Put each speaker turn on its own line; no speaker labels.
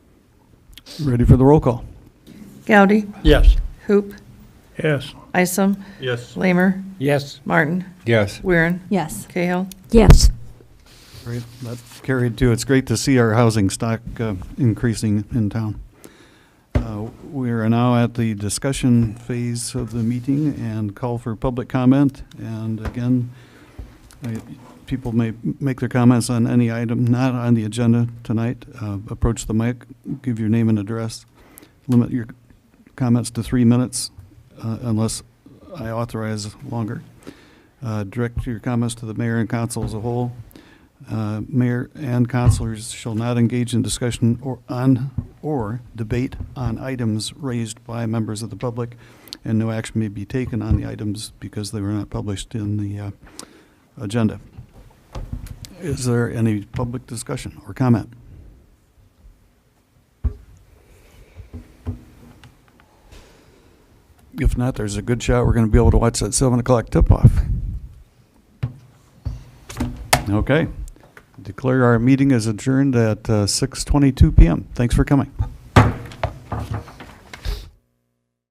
Ready for the roll call?
Gowdy,
Yes.
Hoop,
Yes.
Isom,
Yes.
Lamer,
Yes.
Martin,
Yes.
Weirin,
Yes.
Cahill.
Yes.
Great, that carried too. It's great to see our housing stock uh, increasing in town. Uh, We are now at the discussion phase of the meeting and call for public comment. And again, I- people may make their comments on any item not on the agenda tonight. Uh, Approach the mic, give your name and address. Limit your comments to three minutes uh, unless I authorize longer. Uh, Direct your comments to the mayor and council as a whole. Uh, Mayor and councilors shall not engage in discussion or on, or debate on items raised by members of the public, and no action may be taken on the items because they were not published in the uh, agenda. Is there any public discussion or comment? If not, there's a good shot we're going to be able to watch that 7 o'clock tip-off. Okay. Declare our meeting is adjourned at uh, 6:22 PM. Thanks for coming.